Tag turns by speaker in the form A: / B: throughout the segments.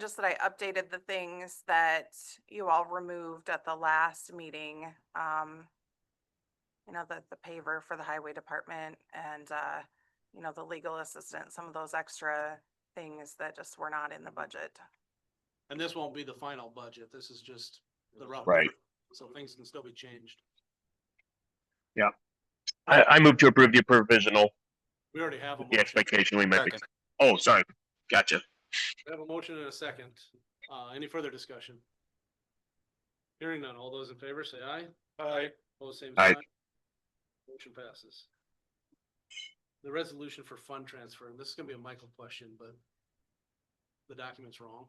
A: just that I updated the things that you all removed at the last meeting. Um, you know, the, the paver for the highway department and, uh, you know, the legal assistant, some of those extra things that just were not in the budget.
B: And this won't be the final budget. This is just the rough.
C: Right.
B: So things can still be changed.
C: I, I move to approve the provisional,
B: We already have. a
C: the
B: motion.
C: expectation we might be.
D: Second.
C: Oh, sorry. Gotcha.
B: We have a motion and a second. Uh, any further discussion? Hearing none. All those in favor say aye. Aye. All the same
C: Aye.
B: sign. Motion passes. The resolution for fund transfer, and this is gonna be a Michael question, but the document's wrong.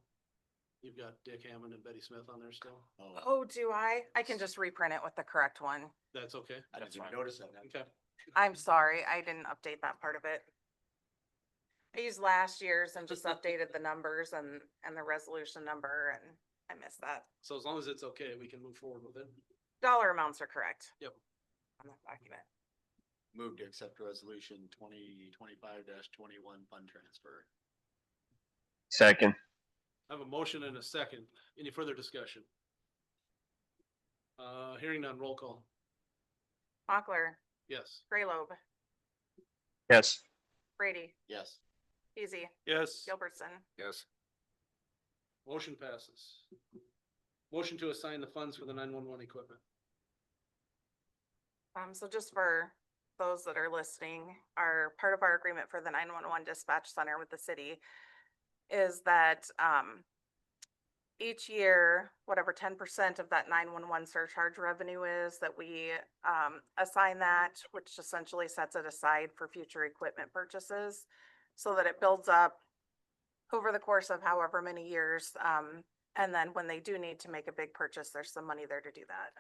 B: You've got Dick Hammond and Betty Smith on there still.
A: Oh, do I? I can just reprint it with the correct one.
B: That's okay.
D: I didn't even notice that.
B: Okay.
A: I'm sorry, I didn't update that part of it. I used last year's and just updated the numbers and, and the resolution number and I missed that.
B: So as long as it's okay, we can move forward with it.
A: Dollar amounts are correct.
B: Yep.
A: On that document.
D: Move to accept resolution twenty twenty-five twenty-one fund transfer.
C: Second.
B: I have a motion and a second. Any further discussion? Uh, hearing none, roll call.
A: Mochler,
B: Yes.
A: Graylobe,
C: Yes.
A: Brady,
D: Yes.
A: Easy,
B: Yes.
A: Gilbertson.
D: Yes.
B: Motion passes. Motion to assign the funds for the nine-one-one equipment.
A: Um, so just for those that are listening, our, part of our agreement for the nine-one-one dispatch center with the city is that, um, each year, whatever ten percent of that nine-one-one surcharge revenue is, that we, um, assign that, which essentially sets it aside for future equipment purchases, so that it builds up over the course of however many years, um, and then when they do need to make a big purchase, there's some money there to do that.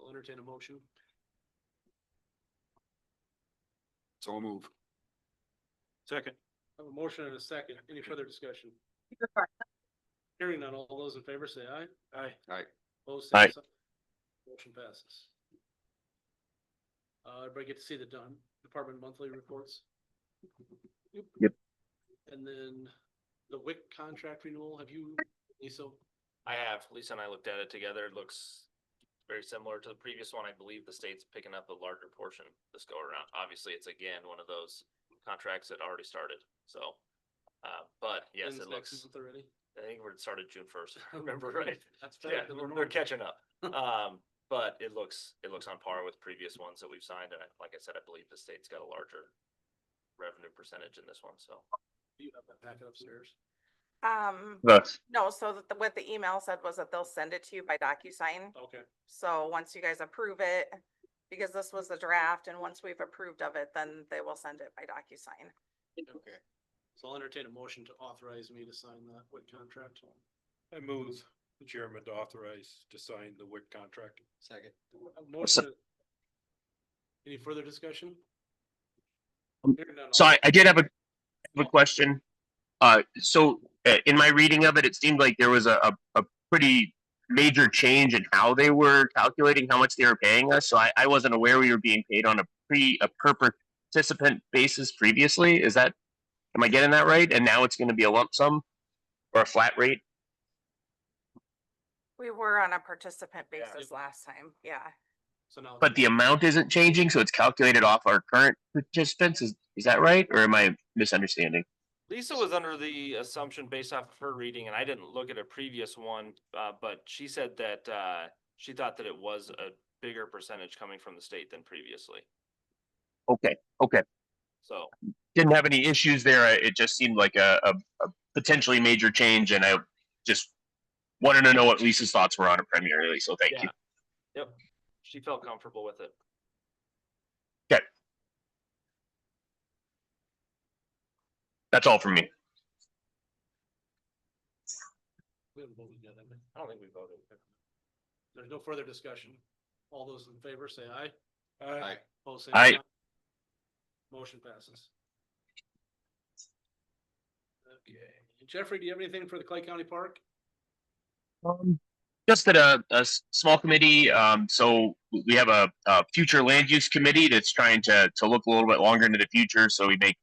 B: I'll entertain a motion.
D: So I'll move.
B: Second. I have a motion and a second. Any further discussion? Hearing none, all those in favor say aye. Aye.
D: Aye.
B: Opposed, same
C: Aye.
B: sign. Motion passes. Uh, everybody get to see the done, department monthly reports?
C: Yep.
B: And then the WIC contract renewal, have you, Lisa?
E: I have, Lisa and I looked at it together, it looks very similar to the previous one, I believe the state's picking up a larger portion this go around, obviously, it's again, one of those contracts that already started, so. Uh, but yes,
B: Ends
E: it
B: next
E: looks,
B: month Already?
E: I think we're started June first, if I remember right,
B: That's
E: yeah,
B: better than
E: we're-
B: normal.
E: we're catching up. Um, but it looks, it looks on par with previous ones that we've signed, and I- like I said, I believe the state's got a larger revenue percentage in this one, so.
B: You have that packet upstairs.
A: Um,
C: Thus.
A: No, so that the- what the email said was that they'll send it to you by DocuSign.
B: Okay.
A: So once you guys approve it, because this was the draft and once we've approved of it, then they will send it by DocuSign.
D: Okay.
B: So I'll entertain a motion to authorize me to sign that WIC contract.
F: I move the chairman to authorize to sign the WIC contract.
D: Second.
B: A motion to- uh, Any further discussion?
C: Um,
B: Hearing none, all
C: So I,
B: those-
C: I did have a, have a question. Uh, so uh, in my reading of it, it seemed like there was a, a, a pretty major change in how they were calculating how much they were paying us. So I, I wasn't aware we were being paid on a pre, a per participant basis previously. Is that, am I getting that right? And now it's gonna be a lump sum or a flat rate?
A: We were on a participant
B: Yeah.
A: basis last time, yeah.
B: So now.
C: But the amount isn't changing, so it's calculated off our current participants. Is, is that right? Or am I misunderstanding?
E: Lisa was under the assumption based off of her reading, and I didn't look at a previous one, uh, but she said that, uh, she thought that it was a bigger percentage coming from the state than previously.
C: Okay, okay.
E: So,
C: didn't have any issues there. I- It just seemed like a, a, a potentially major change, and I just wanted to know what Lisa's thoughts were on it primarily. So thank
E: yeah.
C: you.
E: Yep, she felt comfortable with it.
C: That's all from me.
B: We haven't voted yet, have we?
E: I don't think we voted.
B: There's no further discussion. All those in favor say aye.
D: Aye.
B: Opposed, same
C: Aye.
B: sign. Motion passes. Okay, Jeffrey, do you have anything for the Clay County Park?
C: Um, just that a, a s- small committee, um, so we have a, a future land use committee that's trying to, to look a little bit longer into the future. So we make